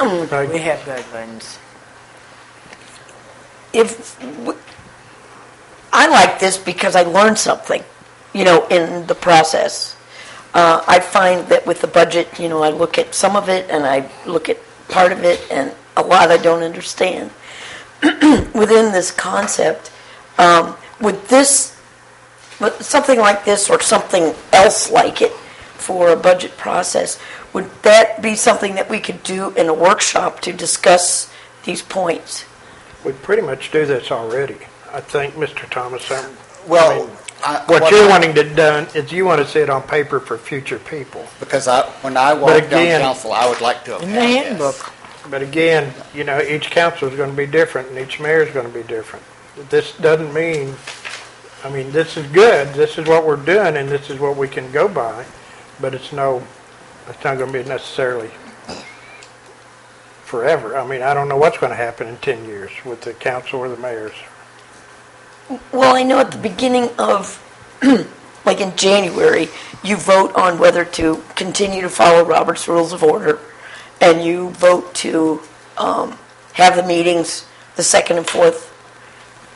Right. We have guidelines. if w- I like this because I learned something, you know, in the process. Uh, I find that with the budget, you know, I look at some of it and I look at part of it and a lot I don't understand. Within this concept, um, would this, but something like this or something else like it for a budget process, would that be something that we could do in a workshop to discuss these points? We pretty much do this already, I think, Mr. Thomas. I'm- I Well, mean, I- What you're wanting to done is you want to see it on paper for future people. Because I, when I walked down again- council, I would like to have In had the this. handbook. But again, you know, each council's going to be different and each mayor's going to be different. This doesn't mean, I mean, this is good, this is what we're doing and this is what we can go by, but it's no, it's not going to be necessarily forever. I mean, I don't know what's going to happen in 10 years with the council or the mayors. Well, I know at the beginning of, like in January, you vote on whether to continue to follow Robert's Rules of Order, and you vote to um, have the meetings the second and fourth.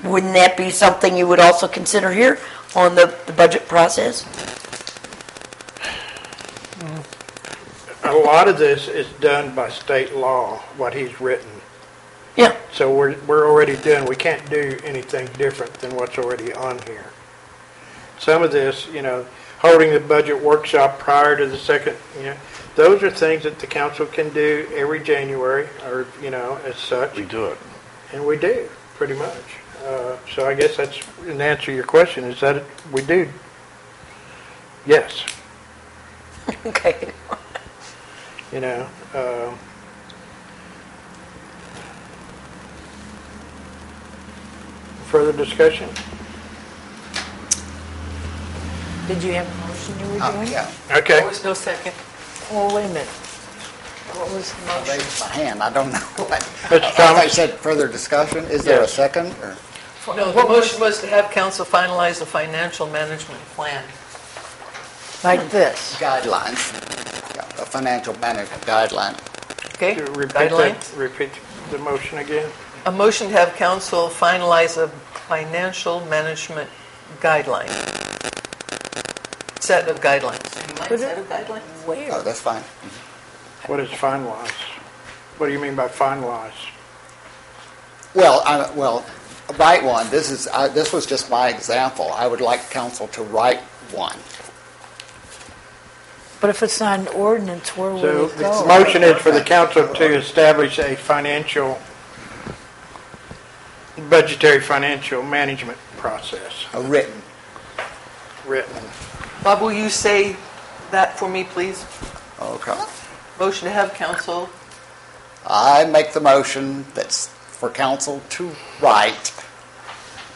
Wouldn't that be something you would also consider here on the the budget process? A lot of this is done by state law, what he's written. Yeah, So we're, we're already done, we can't do anything different than what's already on here. Some of this, you know, holding the budget workshop prior to the second, you know, those are things that the council can do every January, or, you know, as such. We do it. And we do, pretty much. Uh, So I guess that's, an answer to your question, is that we do. Yes, okay. you know, um, further discussion? Did you have a motion you were Um, doing? Yeah, Okay. No second. Well, wait a minute. What was the I motion? raised my hand, I don't know what. Mr. As I Thomas? said, further discussion, is there a Yes. second? or- No, the motion was to have council finalize a financial management plan. Like this. Guidelines, Yeah, a financial management guideline. Okay? Repeat that, Guidelines? repeat the motion again? A motion to have council finalize a financial management guideline. Set of guidelines. Set of guidelines? Oh, Where? that's fine. What is finalize? What do you mean by finalize? Well, I, well, write one, this is, I- this was just my example, I would like council to write one. But if it's not an ordinance, where So will it the go? motion is for the council to establish a financial, budgetary financial management process A written. written. Bob, will you say that for me, please? Okay. Motion to have council, I make the motion that's for council to write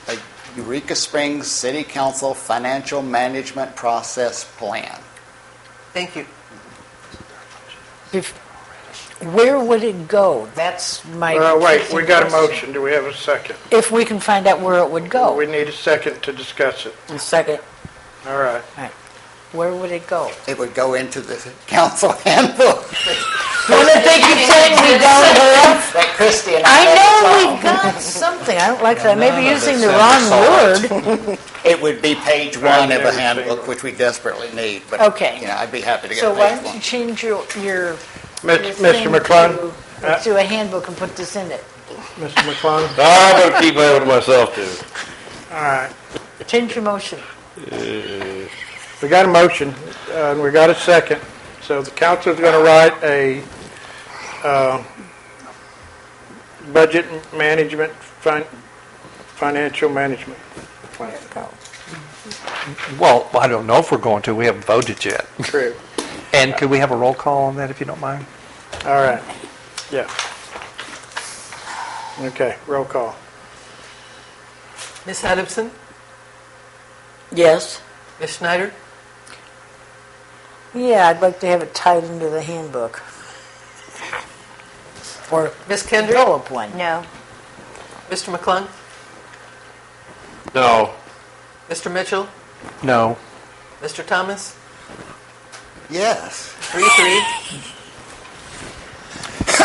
a Eureka Springs City Council Financial Management Process Plan. thank you. If- Where would it go? That's my. Uh, wait, we kicking got a question. motion, do we have a second? If we can find out where it would We go. need a second to discuss it. Second. All right. Where would it go? It would go into the council handbook that Christie and I I know had we got something. I don't like that. Maybe None of using us the ever wrong word. solved. It would be page I've one of never a seen handbook, one. which we desperately need, but, Okay. you know, I'd be happy to get So why page don't you one. change your, your. your Mis- Mr. thing McClung? to- Uh, To a handbook and put this in it. Mr. McClung? I'm gonna keep that with myself too. All right. Change your motion. We got a motion, uh, and we got a second. So the council's going to write a uh, budget management, fin- financial management plan. Well, I don't know if we're going to, we haven't voted yet. Uh, True. And could we have a roll call on that, if you don't mind? All right. Yeah. Okay, roll call. Ms. Adamson, Yes? Ms. Schneider, Yeah, I'd like to have it tied into the handbook. Or Ms. Kendrick, develop one. No. Mr. McClung, No. Mr. Mitchell, No. Mr. Thomas, Yes. three, three.